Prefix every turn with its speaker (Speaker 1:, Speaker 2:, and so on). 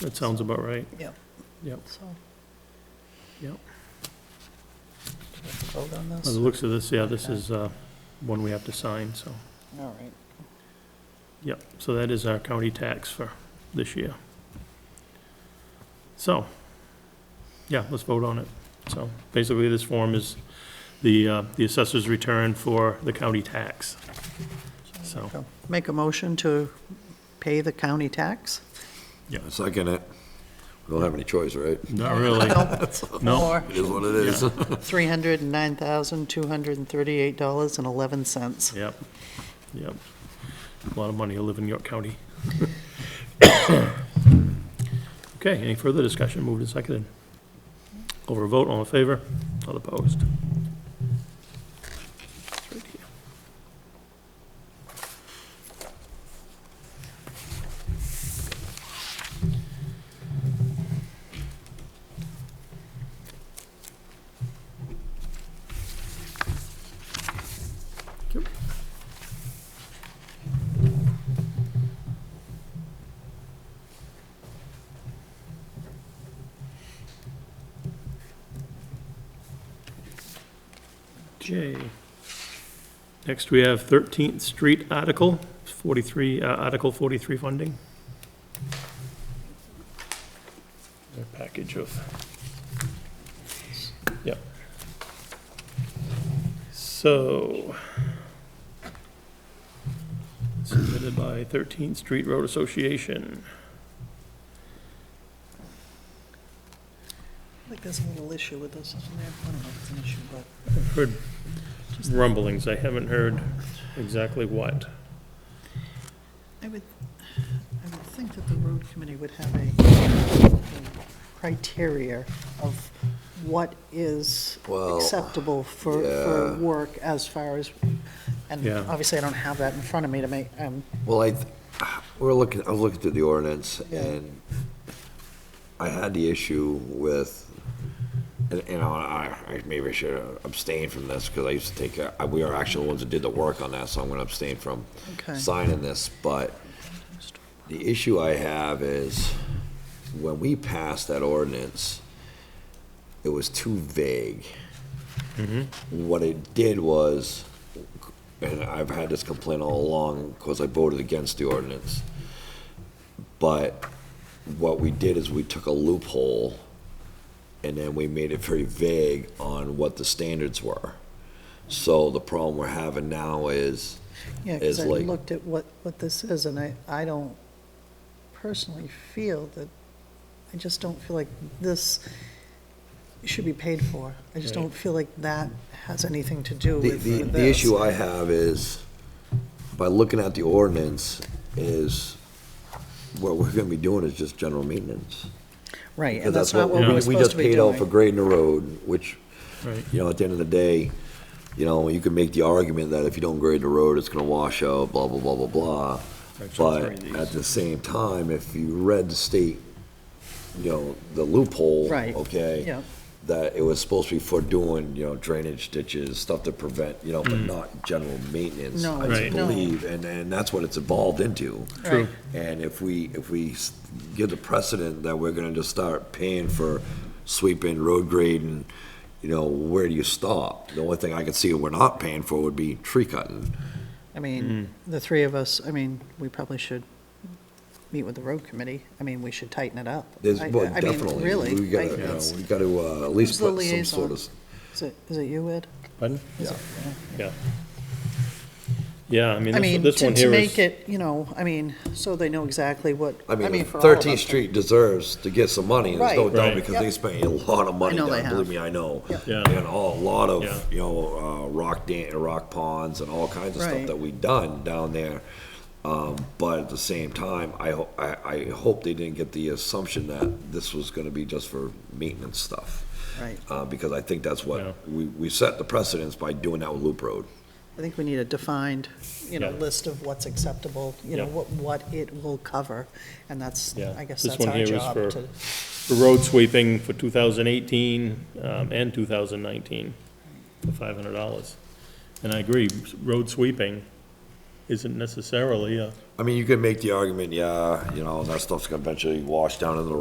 Speaker 1: That sounds about right.
Speaker 2: Yep.
Speaker 1: Yep,
Speaker 2: So,
Speaker 1: yep.
Speaker 2: let's vote on
Speaker 1: By the
Speaker 2: this?
Speaker 1: looks of this, yeah, this is uh, one we have to sign, so,
Speaker 2: All right.
Speaker 1: yep. So that is our county tax for this year. So, yeah, let's vote on it. So basically, this form is the, uh, the assessor's return for the county tax. So,
Speaker 2: Go. Make a motion to pay the county tax?
Speaker 3: Second it. We don't have any choice, right?
Speaker 1: not really, no.
Speaker 2: Or
Speaker 3: It is what it is.
Speaker 2: $309,238.11.
Speaker 1: Yep, yep. A lot of money to live in York County. Okay, any further discussion? Moved and seconded. Over a vote, all in favor? All opposed? It's right here. Okay. Next, we have 13th Street Article, 43, uh, Article 43 funding. A package of, yep. So, submitted by 13th Street Road Association.
Speaker 2: I think there's a little issue with this, isn't there? I don't know if it's an issue, but
Speaker 1: I've heard rumblings, I haven't heard exactly what.
Speaker 2: I would, I would think that the road committee would have a criteria of what is
Speaker 3: Well,
Speaker 2: acceptable for, for work as far as, and
Speaker 1: Yeah.
Speaker 2: obviously I don't have that in front of me to make, um,
Speaker 3: Well, I, th- we're looking, I was looking through the ordinance
Speaker 2: Yeah.
Speaker 3: and I had the issue with, and, you know, I, I maybe should abstain from this because I used to take, uh, we are actually the ones that did the work on that, so I'm going to abstain from
Speaker 2: Okay.
Speaker 3: signing this, but the issue I have is when we passed that ordinance, it was too vague. What it did was, and I've had this complaint all along, because I voted against the ordinance. But what we did is we took a loophole, and then we made it very vague on what the standards were. So the problem we're having now is,
Speaker 2: yeah, because
Speaker 3: It's
Speaker 2: I
Speaker 3: like-
Speaker 2: looked at what, what this is, and I, I don't personally feel that, I just don't feel like this should be paid for. I just
Speaker 1: Right.
Speaker 2: don't feel like that has anything to do
Speaker 3: The,
Speaker 2: with
Speaker 3: the,
Speaker 2: with
Speaker 3: the
Speaker 2: this.
Speaker 3: issue I have is, by looking at the ordinance, is what we're gonna be doing is just general maintenance.
Speaker 2: Right,
Speaker 3: Because
Speaker 2: and that's not what
Speaker 3: we-
Speaker 2: we're supposed to be
Speaker 3: We just paid out for
Speaker 2: doing.
Speaker 3: grading the road, which,
Speaker 1: Right.
Speaker 3: you know, at the end of the day, you know, you can make the argument that if you don't grade the road, it's gonna wash out, blah, blah, blah, blah, blah.
Speaker 1: Actually,
Speaker 3: But
Speaker 1: it's right,
Speaker 3: at
Speaker 1: these.
Speaker 3: the same time, if you read the state, you know, the loophole,
Speaker 2: Right,
Speaker 3: okay?
Speaker 2: yeah.
Speaker 3: That it was supposed to be for doing, you know, drainage ditches, stuff to prevent, you know, but not general maintenance,
Speaker 2: No,
Speaker 3: I
Speaker 1: Right.
Speaker 2: no.
Speaker 3: believe, and, and that's what it's evolved into.
Speaker 1: True.
Speaker 3: And if we, if we s- give the precedent that we're gonna just start paying for sweeping, road grading, you know, where do you stop? The only thing I could see we're not paying for would be tree cutting.
Speaker 2: I mean,
Speaker 1: Mm.
Speaker 2: the three of us, I mean, we probably should meet with the road committee. I mean, we should tighten it up.
Speaker 3: There's,
Speaker 2: I-
Speaker 3: well,
Speaker 2: I mean,
Speaker 3: definitely.
Speaker 2: Really.
Speaker 3: We gotta,
Speaker 2: I-
Speaker 3: you know,
Speaker 2: it's-
Speaker 3: we gotta, uh, at least
Speaker 2: Who's the
Speaker 3: put some sort of,
Speaker 2: liaison? Is it, is it you, Ed?
Speaker 1: Pardon?
Speaker 3: yeah.
Speaker 1: Yeah. Yeah, I mean,
Speaker 2: I mean,
Speaker 1: this- this
Speaker 2: to,
Speaker 1: one
Speaker 2: to
Speaker 1: here
Speaker 2: make
Speaker 1: is,
Speaker 2: it, you know, I mean, so they know exactly what,
Speaker 3: I mean,
Speaker 2: for all of
Speaker 3: Thirteenth
Speaker 2: us.
Speaker 3: Street deserves to get some money, there's no
Speaker 2: Right.
Speaker 3: doubt,
Speaker 1: Right.
Speaker 3: because they spent a lot of money
Speaker 2: know they
Speaker 3: down,
Speaker 2: have.
Speaker 3: believe me, I know.
Speaker 2: Yeah.
Speaker 1: Yeah.
Speaker 3: And all, a lot
Speaker 1: Yeah.
Speaker 3: of, you know, uh, rock dan, rock ponds and all kinds of
Speaker 2: Right.
Speaker 3: stuff that we done down there. Um, but at the same time, I ho- I, I hope they didn't get the assumption that this was gonna be just for maintenance stuff.
Speaker 2: Right.
Speaker 3: Uh, because I think that's
Speaker 1: Yeah.
Speaker 3: what, we, we set the precedence by doing that with Loop Road.
Speaker 2: I think we need a defined, you know,
Speaker 1: Yeah.
Speaker 2: list of what's acceptable, you know,
Speaker 1: Yeah.
Speaker 2: what, what it will cover. And that's,
Speaker 1: Yeah.
Speaker 2: I guess
Speaker 1: This
Speaker 2: that's
Speaker 1: one
Speaker 2: our
Speaker 1: here is
Speaker 2: job
Speaker 1: for-
Speaker 2: to,
Speaker 1: for road sweeping for 2018 um, and 2019 for $500. And I agree, road sweeping isn't necessarily a
Speaker 3: I mean, you could make the argument, yeah, you know, that stuff's gonna eventually wash down into the